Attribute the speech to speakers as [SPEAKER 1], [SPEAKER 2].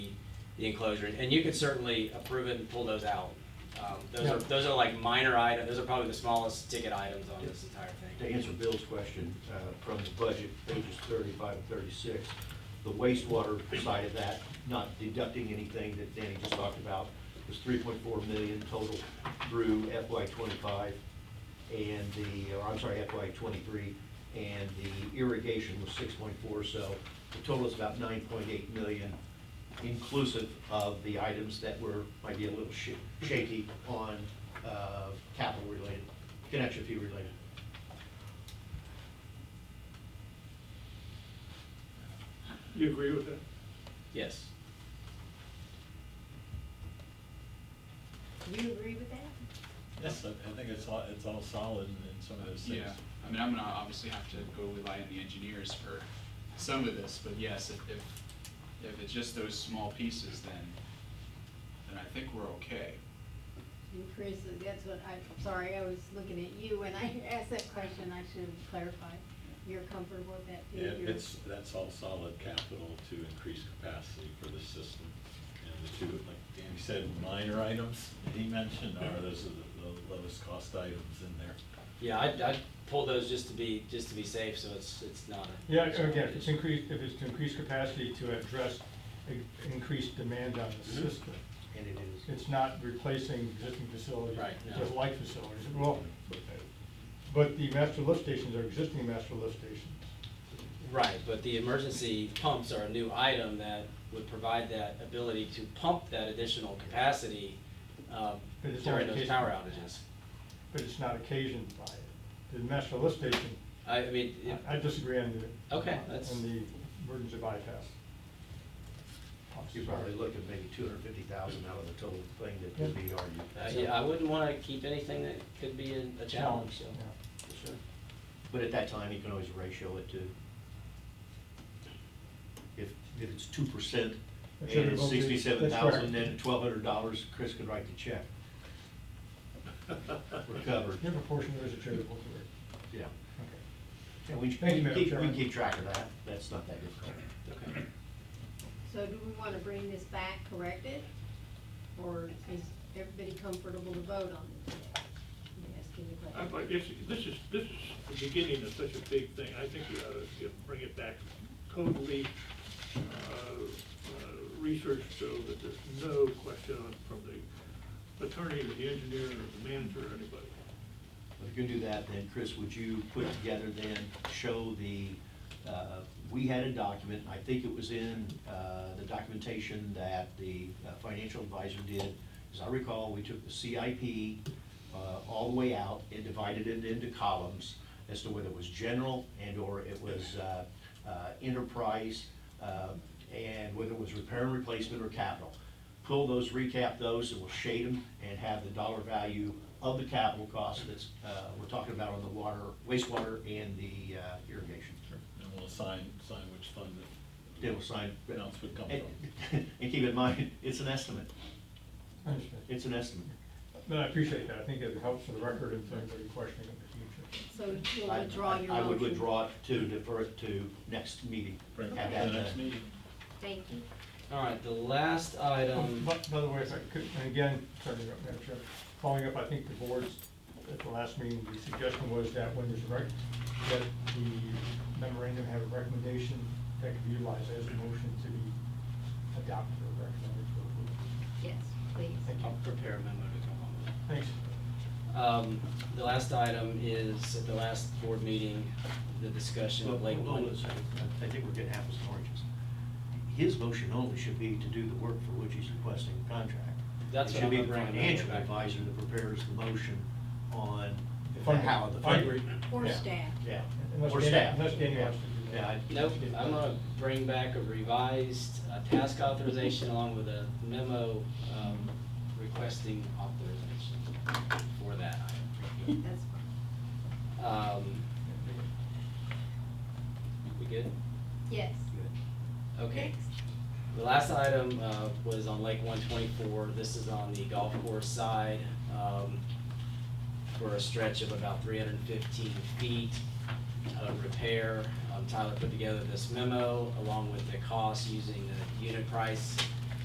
[SPEAKER 1] the enclosure, and you could certainly approve it and pull those out. Um, Those
[SPEAKER 2] Yeah.
[SPEAKER 1] are, those are like minor items, those are probably the smallest ticket items on this entire
[SPEAKER 2] To
[SPEAKER 1] thing.
[SPEAKER 2] answer Bill's question, uh, from the budget, pages thirty-five and thirty-six, the wastewater side of that, not deducting anything that Danny just talked about, was three point four million total through FY twenty-five, and the, or I'm sorry, FY twenty-three, and the irrigation was six point four, so the total is about nine point eight million, inclusive of the items that were, might be a little sh- shaky on uh, capital related, connection fee related.
[SPEAKER 3] You agree with that?
[SPEAKER 1] Yes.
[SPEAKER 4] You agree with that?
[SPEAKER 5] Yes, I I think it's all, it's all solid in in some of those things.
[SPEAKER 6] Yeah, I mean, I'm gonna obviously have to go rely on the engineers for some of this, but yes, if, if, if it's just those small pieces, then, then I think we're okay.
[SPEAKER 4] And Chris, that's what, I- I'm sorry, I was looking at you when I asked that question, I should have clarified. You're comfortable with that?
[SPEAKER 5] Yeah,
[SPEAKER 4] figure?
[SPEAKER 5] it's, that's all solid capital to increase capacity for the system. And the two, like Danny said, minor items that he mentioned are, those are the low- lowest cost items in there.
[SPEAKER 1] Yeah, I'd, I'd pull those just to be, just to be safe, so it's, it's not a.
[SPEAKER 7] Yeah, again, if it's increased, if it's to increase capacity to address in- increased demand on the
[SPEAKER 1] Mm-hmm.
[SPEAKER 7] system.
[SPEAKER 2] And it is.
[SPEAKER 7] It's not replacing existing facilities.
[SPEAKER 1] Right,
[SPEAKER 7] It's
[SPEAKER 1] no.
[SPEAKER 7] just like facilities. Well, but the master lift stations are existing master lift stations.
[SPEAKER 1] Right, but the emergency pumps are a new item that would provide that ability to pump that additional capacity um,
[SPEAKER 7] But it's
[SPEAKER 1] during those
[SPEAKER 7] not occasion-
[SPEAKER 1] power outages.
[SPEAKER 7] But it's not occasioned by it. The master lift station,
[SPEAKER 1] I, I mean, it-
[SPEAKER 7] I I disagree on the.
[SPEAKER 1] Okay, that's-
[SPEAKER 7] On the burdens of bypass.
[SPEAKER 2] You're probably looking maybe two hundred fifty thousand out of the total thing that could be
[SPEAKER 1] uh,
[SPEAKER 2] argued.
[SPEAKER 1] yeah, I wouldn't want to keep anything that could be a, a challenge, so.
[SPEAKER 7] Yeah.
[SPEAKER 2] Sure. But at that time, you can always ratio it to, if, if it's two percent and it's
[SPEAKER 7] Attributable to-
[SPEAKER 2] sixty-seven thousand,
[SPEAKER 7] that's
[SPEAKER 2] then twelve hundred dollars, Chris could write the check. We're covered,
[SPEAKER 7] Your proportion is attributable to it.
[SPEAKER 2] yeah.
[SPEAKER 7] Okay.
[SPEAKER 2] And we, we
[SPEAKER 7] Thank you,
[SPEAKER 2] can
[SPEAKER 7] Madam
[SPEAKER 2] keep, we
[SPEAKER 7] Chairman.
[SPEAKER 2] can keep track of that, that's not that difficult.
[SPEAKER 1] Okay.
[SPEAKER 4] So do we want to bring this back corrected? Or is everybody comfortable to vote on it today? I'm asking the question.
[SPEAKER 3] I'd like, this, this is, this is the beginning of such a big thing, I think we ought to you know, bring it back totally, uh, uh, researched so that there's no question on- from the attorney or the engineer or the manager or anybody.
[SPEAKER 2] If you're gonna do that, then Chris, would you put together then, show the, uh, we had a document, I think it was in uh, the documentation that the uh, financial advisor did. As I recall, we took the CIP uh, all the way out and divided it into columns as to whether it was general and/or it was uh, uh, enterprise, uh, and whether it was repair and replacement or capital pull those, recap those, and we'll shade them and have the dollar value of the capital cost that's, uh, we're talking about on the water, wastewater and the uh, irrigation.
[SPEAKER 5] And we'll assign, assign which fund that.
[SPEAKER 2] Then we'll sign.
[SPEAKER 5] Amounts would come
[SPEAKER 2] And
[SPEAKER 5] from.
[SPEAKER 2] and keep in mind, it's an estimate,
[SPEAKER 7] I understand.
[SPEAKER 2] it's an estimate.
[SPEAKER 7] But I appreciate that. I think it helps for the record and for anybody questioning in the future.
[SPEAKER 4] So you'll
[SPEAKER 2] I-
[SPEAKER 4] withdraw your motion?
[SPEAKER 2] I I would withdraw it to defer it to next meeting.
[SPEAKER 5] Bring it
[SPEAKER 2] Have
[SPEAKER 5] to the
[SPEAKER 2] that
[SPEAKER 5] next
[SPEAKER 2] done.
[SPEAKER 5] meeting.
[SPEAKER 4] Thank you.
[SPEAKER 1] All right, the last item,
[SPEAKER 7] But, Um, by the way, if I could, and again, sorry, to interrupt, Madam Chair, following up, I think the board's, at the last meeting, the suggestion was that when there's a rec, that the memorandum have a recommendation that could be utilized as a motion to be adopted or recommended for approval.
[SPEAKER 4] Yes, please.
[SPEAKER 1] I'll prepare a memo to come home with.
[SPEAKER 7] Thanks.
[SPEAKER 1] Um, The last item is, at the last board meeting, the discussion
[SPEAKER 2] Well,
[SPEAKER 1] of Lake
[SPEAKER 2] hold on a
[SPEAKER 1] One.
[SPEAKER 2] second. I think we're getting apples and oranges. His motion only should be to do the work for which he's requesting the contract.
[SPEAKER 1] That's
[SPEAKER 2] It
[SPEAKER 1] what
[SPEAKER 2] should
[SPEAKER 1] I'm
[SPEAKER 2] be
[SPEAKER 1] gonna
[SPEAKER 2] the
[SPEAKER 1] bring it
[SPEAKER 2] financial
[SPEAKER 1] back.
[SPEAKER 2] advisor that prepares the motion on the
[SPEAKER 7] Funding.
[SPEAKER 2] how the
[SPEAKER 7] I
[SPEAKER 2] funding.
[SPEAKER 7] agree.
[SPEAKER 4] Or
[SPEAKER 7] Yeah.
[SPEAKER 4] staff.
[SPEAKER 2] Yeah,
[SPEAKER 7] Unless
[SPEAKER 2] or
[SPEAKER 7] Danny-
[SPEAKER 2] staff.
[SPEAKER 7] unless Danny wants to do that.
[SPEAKER 2] Yeah, I-
[SPEAKER 1] Nope, I'm gonna bring back a revised uh, task authorization along with a memo um, requesting authorization for that item.
[SPEAKER 4] That's fine.
[SPEAKER 1] Um, We good?
[SPEAKER 4] Yes.
[SPEAKER 1] Okay.
[SPEAKER 4] Next.
[SPEAKER 1] The last item uh, was on Lake 124. This is on the golf course side um, for a stretch of about 315 feet of repair. Um, Tyler put together this memo along with the cost using the unit price